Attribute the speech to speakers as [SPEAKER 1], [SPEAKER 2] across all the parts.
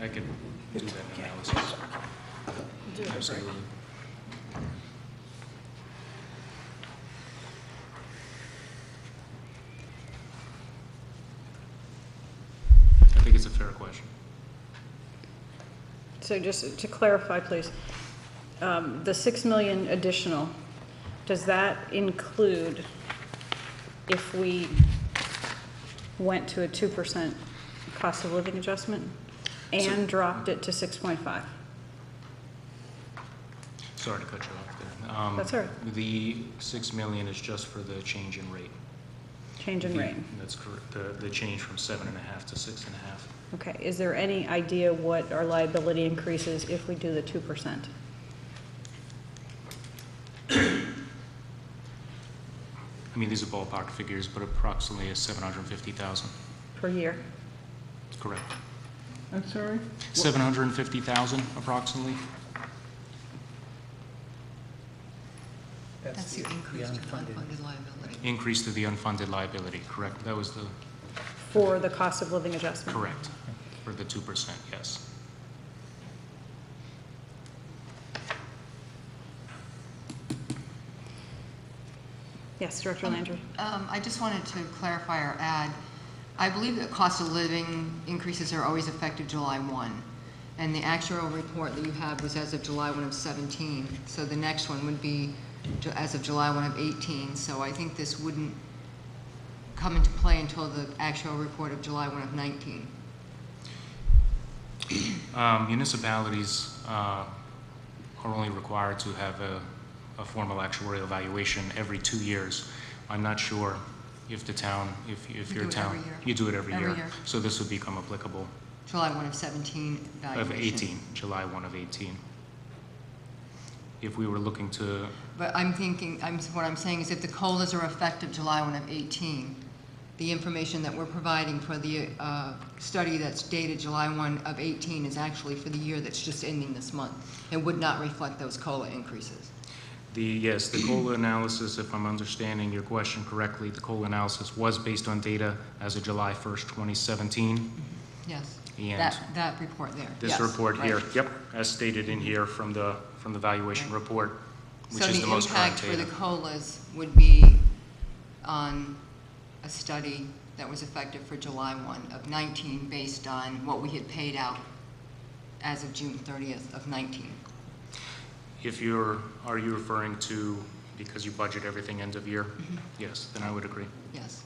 [SPEAKER 1] I could do that analysis. Absolutely. I think it's a fair question.
[SPEAKER 2] So just to clarify, please, um, the 6 million additional, does that include if we went to a 2% cost of living adjustment and dropped it to 6.5?
[SPEAKER 1] Sorry to cut you off there. Um,
[SPEAKER 2] That's all
[SPEAKER 1] The six million is just for the change in rate.
[SPEAKER 2] Change in
[SPEAKER 1] The-
[SPEAKER 2] rate?
[SPEAKER 1] That's correct, the, the change from seven and a half to six and a half.
[SPEAKER 2] Okay, is there any idea what our liability increases if we do the 2%?
[SPEAKER 1] I mean, these are ballpark figures, but approximately is seven hundred and fifty thousand,
[SPEAKER 2] Per year?
[SPEAKER 1] correct?
[SPEAKER 3] I'm sorry?
[SPEAKER 1] Seven hundred and fifty thousand approximately?
[SPEAKER 4] That's the increase to unfunded liability.
[SPEAKER 1] Increase to the unfunded liability, correct? That was the,
[SPEAKER 2] For the cost of living adjustment?
[SPEAKER 1] correct, for the 2%, yes.
[SPEAKER 2] Yes, Director Landry?
[SPEAKER 4] Um, I just wanted to clarify or add, I believe that cost of living increases are always effective July 1. And the actual report that you had was as of July 1 of 17. So the next one would be ju- as of July 1 of 18. So I think this wouldn't come into play until the actual report of July 1 of 19.
[SPEAKER 1] Um, Municipalities uh, are only required to have a, a formal actuarial evaluation every two years. I'm not sure if the town, if, if
[SPEAKER 4] We
[SPEAKER 1] your
[SPEAKER 4] do it
[SPEAKER 1] town.
[SPEAKER 4] every year.
[SPEAKER 1] You do it every year.
[SPEAKER 4] Every year.
[SPEAKER 1] So this would become applicable
[SPEAKER 4] July 1 of 17
[SPEAKER 1] of
[SPEAKER 4] valuation.
[SPEAKER 1] 18, July 1 of 18. If we were looking to,
[SPEAKER 4] But I'm thinking, I'm, what I'm saying is if the COLAs are effective July 1 of 18, the information that we're providing for the uh, study that's dated July 1 of 18 is actually for the year that's just ending this month and would not reflect those COLA increases.
[SPEAKER 1] the, yes, the COLA analysis, if I'm understanding your question correctly, the COLA analysis was based on data as of July 1st, 2017.
[SPEAKER 4] Yes.
[SPEAKER 1] And-
[SPEAKER 4] That, that report there.
[SPEAKER 1] This
[SPEAKER 4] Yes,
[SPEAKER 1] report here,
[SPEAKER 4] right.
[SPEAKER 1] yep, as stated in here from the, from the valuation
[SPEAKER 4] Right.
[SPEAKER 1] report, which is the most current
[SPEAKER 4] So the impact for
[SPEAKER 1] data.
[SPEAKER 4] the COLAs would be on a study that was effective for July 1 of 19 based on what we had paid out as of June 30th of 19.
[SPEAKER 1] If you're, are you referring to, because you budget everything end of year?
[SPEAKER 4] Mm-hmm.
[SPEAKER 1] Yes, then I would agree.
[SPEAKER 4] Yes,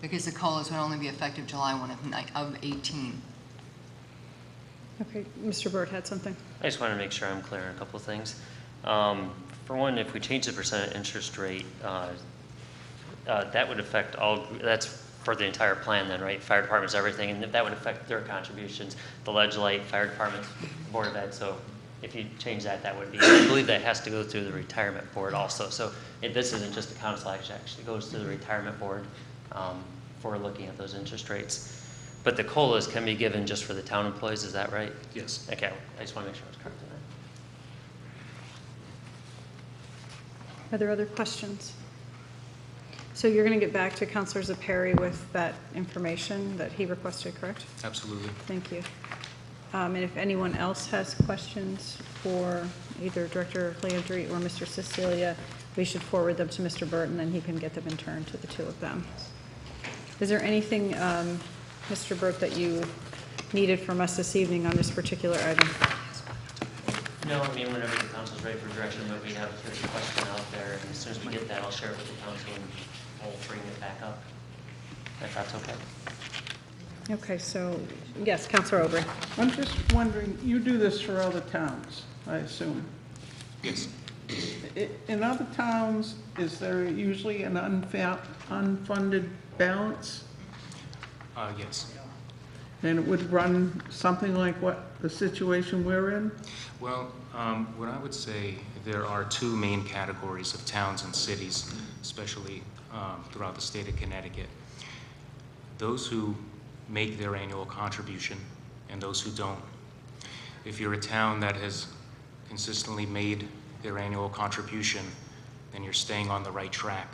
[SPEAKER 4] because the COLAs would only be effective July 1 of ni- of 18.
[SPEAKER 2] Okay, Mr. Burt had something?
[SPEAKER 5] I just want to make sure I'm clear on a couple of things. Um, For one, if we change the percent interest rate, uh, uh, that would affect all, that's for the entire plan then, right? Fire departments, everything, and that would affect their contributions, the ledge light, fire departments, board of ed. So if you change that, that would be, I believe that has to go through the retirement board also. So it- this isn't just a council action, it actually goes through the retirement board um, for looking at those interest rates. But the COLAs can be given just for the town employees, is that right?
[SPEAKER 1] Yes.
[SPEAKER 5] Okay, I just want to make sure I was correct on that.
[SPEAKER 2] Are there other questions? So you're going to get back to Counselor Perry with that information that he requested, correct?
[SPEAKER 1] Absolutely.
[SPEAKER 2] Thank you. Um, And if anyone else has questions for either Director Landry or Mr. Cecilia, we should forward them to Mr. Burton, and he can get them in turn to the two of them. Is there anything, um, Mr. Burt, that you needed from us this evening on this particular item?
[SPEAKER 5] No, I mean, whenever the council's ready for direction, but we have, there's a question out there, and as soon as we get that, I'll share it with the council and we'll bring it back up, if that's okay.
[SPEAKER 2] Okay, so, yes, Counselor Aubrey.
[SPEAKER 3] I'm just wondering, you do this for other towns, I assume.
[SPEAKER 1] Yes.
[SPEAKER 3] I- In other towns, is there usually an unfa- unfunded balance?
[SPEAKER 1] Uh, yes.
[SPEAKER 3] And it would run something like what the situation we're in?
[SPEAKER 1] Well, um, what I would say, there are two main categories of towns and cities, especially um, throughout the state of Connecticut. Those who make their annual contribution and those who don't. If you're a town that has consistently made their annual contribution, then you're staying on the right track.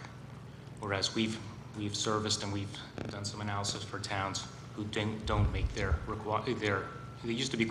[SPEAKER 1] Whereas we've, we've serviced and we've done some analysis for towns who don't don't make their, requi- their, they used to be